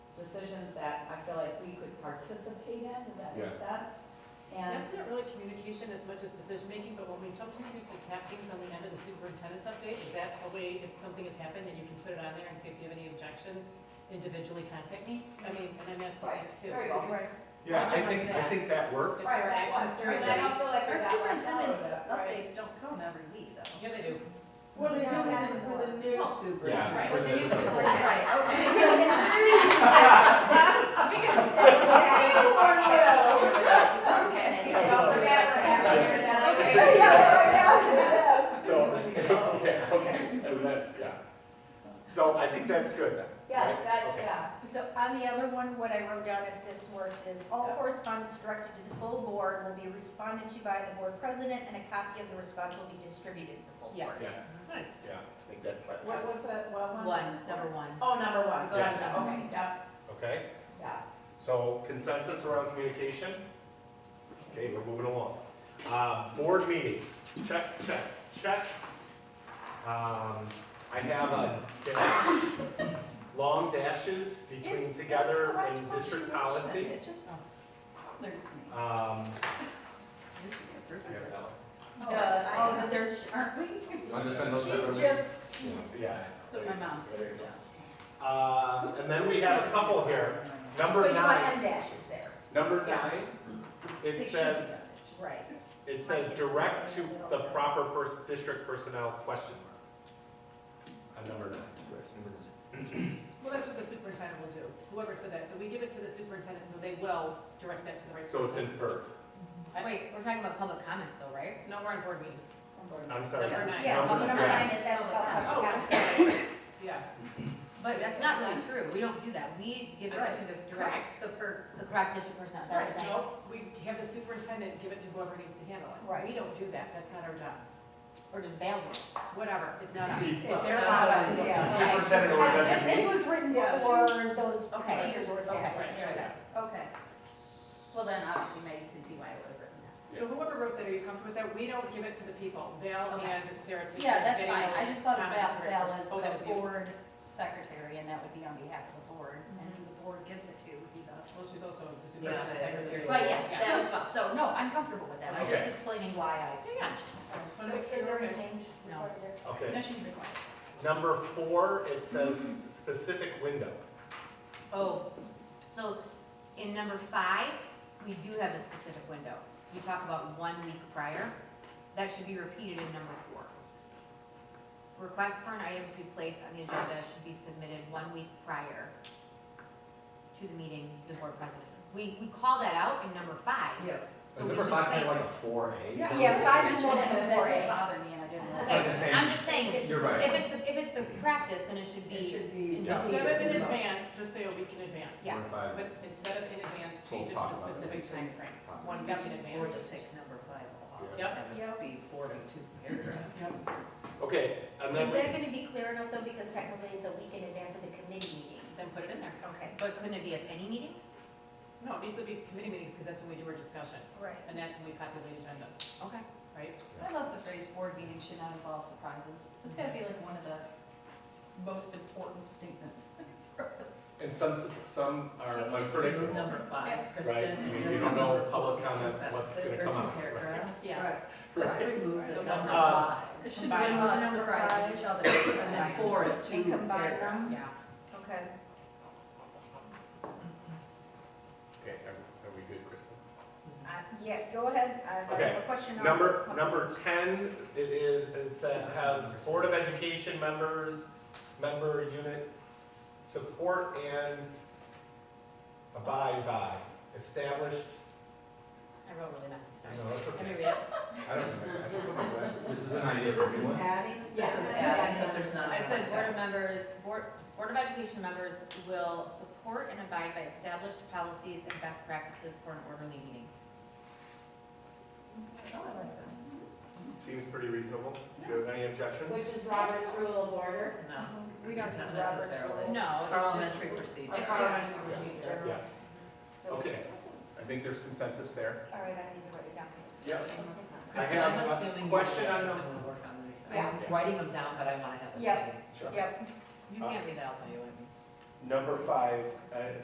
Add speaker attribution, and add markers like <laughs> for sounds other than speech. Speaker 1: decisions that I feel like we could participate in, does that make
Speaker 2: Yeah.
Speaker 1: sense? And,
Speaker 3: That's not really communication as much as decision-making, but when we sometimes used to tap things on the end of the superintendent's update, is that a way, if something has happened, then you can put it on there and say, if you have any objections, individually contact me? I mean, and I'm asking
Speaker 1: right,
Speaker 3: that too.
Speaker 1: there you go.
Speaker 3: because
Speaker 2: Yeah, I
Speaker 3: Something
Speaker 2: think,
Speaker 3: like
Speaker 2: I
Speaker 3: that.
Speaker 2: think that works.
Speaker 3: It's their
Speaker 1: Right, that
Speaker 3: actions
Speaker 1: was-
Speaker 3: during
Speaker 1: and I don't
Speaker 3: the.
Speaker 1: feel like we
Speaker 4: Our
Speaker 1: got on top of
Speaker 4: superintendent's
Speaker 1: it, right?
Speaker 4: updates don't come every week,
Speaker 1: <laughs>
Speaker 4: though.
Speaker 3: Yeah, they do.
Speaker 5: Well, they do
Speaker 1: Yeah.
Speaker 5: with the, with the new
Speaker 4: Well,
Speaker 5: superintendent.
Speaker 3: Right,
Speaker 2: for
Speaker 3: but
Speaker 2: the-
Speaker 3: they use
Speaker 2: for
Speaker 3: it for
Speaker 2: the-
Speaker 3: that.
Speaker 6: <laughs>
Speaker 1: Don't forget what happened here, that's
Speaker 3: Okay.
Speaker 1: okay.
Speaker 2: So, <laughs> okay, okay, is that, yeah. So I think that's good then.
Speaker 1: Yes,
Speaker 2: right?
Speaker 1: that,
Speaker 2: Okay.
Speaker 1: yeah,
Speaker 6: So on the other one, what I wrote down, if this works, is all correspondence directed to the full board will be responded to by the board president, and a copy of the response will be distributed to the full
Speaker 3: Yes.
Speaker 6: board.
Speaker 2: Yes,
Speaker 3: Nice.
Speaker 2: yeah, I think that
Speaker 1: what
Speaker 2: clarifies.
Speaker 1: was the, what one?
Speaker 3: One, number one.
Speaker 1: Oh, number one, good,
Speaker 2: Yes.
Speaker 1: okay, yeah,
Speaker 2: Okay,
Speaker 1: yeah.
Speaker 2: so consensus around communication? Okay, we're moving along. Uh, board meetings, check, check, check. Um, I have a dash, long dashes between
Speaker 6: It's the
Speaker 2: together
Speaker 6: correct
Speaker 2: and district
Speaker 6: punctuation.
Speaker 2: policy.
Speaker 6: It just bothers me.
Speaker 2: Um, yeah, that
Speaker 6: Uh, Oh, but there's, aren't we? She's just,
Speaker 2: one. yeah.
Speaker 4: That's what my mom did.
Speaker 2: There you go. Uh, and then we have a couple here.
Speaker 6: so
Speaker 2: Number
Speaker 6: you want
Speaker 2: nine,
Speaker 6: M dashes there.
Speaker 2: number
Speaker 1: Yes.
Speaker 2: nine,
Speaker 6: They
Speaker 2: it
Speaker 6: should
Speaker 2: says,
Speaker 6: be. Right.
Speaker 2: it says direct to the proper person, district personnel question mark. On number nine.
Speaker 3: Well, that's what the superintendent will do, whoever said that. So we give it to the superintendent, so they will direct that to the right
Speaker 2: So it's
Speaker 3: person.
Speaker 2: inferred.
Speaker 3: Wait,
Speaker 7: we're talking about public comments though, right?
Speaker 3: No, we're on board meetings.
Speaker 2: I'm sorry.
Speaker 3: Number nine.
Speaker 6: Yeah,
Speaker 2: Number
Speaker 6: number
Speaker 2: nine.
Speaker 6: nine is that's about.
Speaker 3: Oh, I'm sorry. Yeah.
Speaker 7: But that's not really true, we don't do that, we give it
Speaker 3: Right.
Speaker 7: to the direct, the per, the correct district person, is that what
Speaker 3: Right,
Speaker 7: you're saying?
Speaker 3: so we have the superintendent give it to whoever needs to handle it.
Speaker 6: Right.
Speaker 3: We don't do that, that's not our job.
Speaker 7: Or just bail them?
Speaker 3: Whatever, it's not us. It's
Speaker 1: Well,
Speaker 3: their
Speaker 1: it's not
Speaker 3: job.
Speaker 1: us, yeah.
Speaker 2: Superintendent or
Speaker 6: This this
Speaker 2: designee.
Speaker 6: was written
Speaker 1: Yeah,
Speaker 6: before those
Speaker 7: Okay.
Speaker 6: procedures were
Speaker 7: Okay,
Speaker 6: established.
Speaker 7: okay,
Speaker 4: Okay. Well, then obviously now you can see why I would have written that.
Speaker 3: So whoever wrote that, are you comfortable with that? We don't give it to the people, Val
Speaker 7: Okay.
Speaker 3: and Sarah. take
Speaker 4: Yeah, that's
Speaker 3: getting
Speaker 4: fine. I
Speaker 3: those
Speaker 4: just thought
Speaker 3: comments
Speaker 4: about
Speaker 3: for-
Speaker 4: Val as
Speaker 3: Oh, that was
Speaker 4: the
Speaker 3: you.
Speaker 4: board secretary, and that would be on behalf of the board, and who the board gives it to would be the.
Speaker 3: Mm-hmm. Well, she's also the
Speaker 7: Yeah,
Speaker 3: superintendent secretary.
Speaker 4: But yes,
Speaker 3: Yeah.
Speaker 4: that was fine. So, no, I'm comfortable with that. I'm just
Speaker 2: Okay.
Speaker 4: explaining why I.
Speaker 3: Yeah. I just
Speaker 6: So
Speaker 3: wanna make sure
Speaker 6: is there
Speaker 3: we're
Speaker 6: a
Speaker 3: okay.
Speaker 6: change?
Speaker 7: No.
Speaker 6: required there?
Speaker 2: Okay.
Speaker 4: No, she's required.
Speaker 2: Number four, it says specific window.
Speaker 7: Oh, so in number five, we do have a specific window. We talk about one week prior. That should be repeated in number four. Request for an item to be placed on the agenda should be submitted one week prior to the meeting to the board president. We, we call that out in number five.
Speaker 5: Yeah.
Speaker 7: So we should say.
Speaker 8: a four A.
Speaker 6: Yeah, yeah, five is
Speaker 4: Mentioned
Speaker 6: more
Speaker 4: it,
Speaker 6: than
Speaker 4: but that
Speaker 6: four
Speaker 4: didn't
Speaker 6: A.
Speaker 4: bother me, and I didn't. want to-
Speaker 8: Like the
Speaker 7: Okay,
Speaker 8: same-
Speaker 7: I'm just saying,
Speaker 8: You're right.
Speaker 7: if it's, the if it's the practice, then it should
Speaker 5: It
Speaker 7: be,
Speaker 5: should be.
Speaker 2: Yeah.
Speaker 3: Instead of in advance, just say a week in advance.
Speaker 7: Yeah.
Speaker 3: But instead of in advance, change it to the specific timeframe, one week in
Speaker 5: Or
Speaker 3: advance.
Speaker 5: just take number five off.
Speaker 3: Yep.
Speaker 5: Have it Be forty-two paragraphs.
Speaker 2: Okay, and then,
Speaker 6: Is that gonna be clear enough though, because technically it's a week in advance of the committee meetings?
Speaker 3: Then put it in there.
Speaker 6: Okay,
Speaker 7: but couldn't it be at any meeting?
Speaker 3: No, it needs to be committee meetings because that's when we do our discussion
Speaker 6: right.
Speaker 3: and that's when we populate agendas,
Speaker 7: Okay.
Speaker 3: right?
Speaker 4: I love the phrase board meetings should not involve surprises. It's gotta be like one of the most important statements. <laughs>
Speaker 2: and some, some are unpredictable.
Speaker 5: Remove number
Speaker 4: Yeah.
Speaker 5: five,
Speaker 2: Right,
Speaker 5: Kristen.
Speaker 2: I mean,
Speaker 5: just
Speaker 2: you don't know
Speaker 5: remove
Speaker 2: public
Speaker 5: two
Speaker 2: comment, what's
Speaker 5: sentences
Speaker 2: gonna
Speaker 5: or
Speaker 2: come
Speaker 5: two
Speaker 2: out, right.
Speaker 5: paragraphs.
Speaker 3: Yeah.
Speaker 5: Right. Just
Speaker 2: Right.
Speaker 5: remove the
Speaker 3: Right.
Speaker 5: number
Speaker 2: Uh,
Speaker 5: five.
Speaker 4: There should be
Speaker 3: Combine
Speaker 4: one
Speaker 3: them.
Speaker 4: surprise each other.
Speaker 5: And then four is two
Speaker 6: And combine
Speaker 5: paragraphs.
Speaker 6: them?
Speaker 5: Yeah.
Speaker 6: Okay.
Speaker 2: Okay, are are we good, Kristen?
Speaker 6: Uh, Yeah, go ahead, I have
Speaker 2: Okay.
Speaker 6: a question on. Oh,
Speaker 2: Number, number ten, it is, it says, has Board of Education members, member unit support and abide by established,
Speaker 7: I wrote really messy
Speaker 2: I
Speaker 7: stuff.
Speaker 2: know, that's
Speaker 7: Let me
Speaker 2: okay.
Speaker 7: read it.
Speaker 2: I don't know, I just don't know.
Speaker 8: This is an idea for everyone.
Speaker 5: adding? This is
Speaker 1: Yeah.
Speaker 5: adding, because there's not.
Speaker 7: I
Speaker 5: a
Speaker 7: said
Speaker 5: contact.
Speaker 7: board members, board, board of education members will support and abide by established policies and best practices for an orderly meeting.
Speaker 2: Seems pretty reasonable. Do you have any objections?
Speaker 1: Which is Robert's rule of order.
Speaker 5: No,
Speaker 6: We don't
Speaker 5: not
Speaker 6: use Robert's
Speaker 5: necessarily.
Speaker 6: rules.
Speaker 7: No, it's just-
Speaker 5: Parliamentary
Speaker 7: It's
Speaker 5: procedure.
Speaker 7: just-
Speaker 2: Yeah,
Speaker 6: So-
Speaker 2: okay. I think there's consensus there.
Speaker 6: All right, I need to write it down.
Speaker 2: Yes. I
Speaker 5: Kristen,
Speaker 2: have
Speaker 5: I'm
Speaker 2: a
Speaker 5: assuming you're
Speaker 2: question
Speaker 5: doing
Speaker 2: on
Speaker 5: this
Speaker 2: the-
Speaker 5: and we'll work on these.
Speaker 6: Yeah.
Speaker 5: I'm writing them down, but I want to have the
Speaker 6: Yeah.
Speaker 5: same.
Speaker 2: Sure.
Speaker 6: Yep.
Speaker 7: You can't read that, I'll tell you what it means.
Speaker 2: Number five, uh,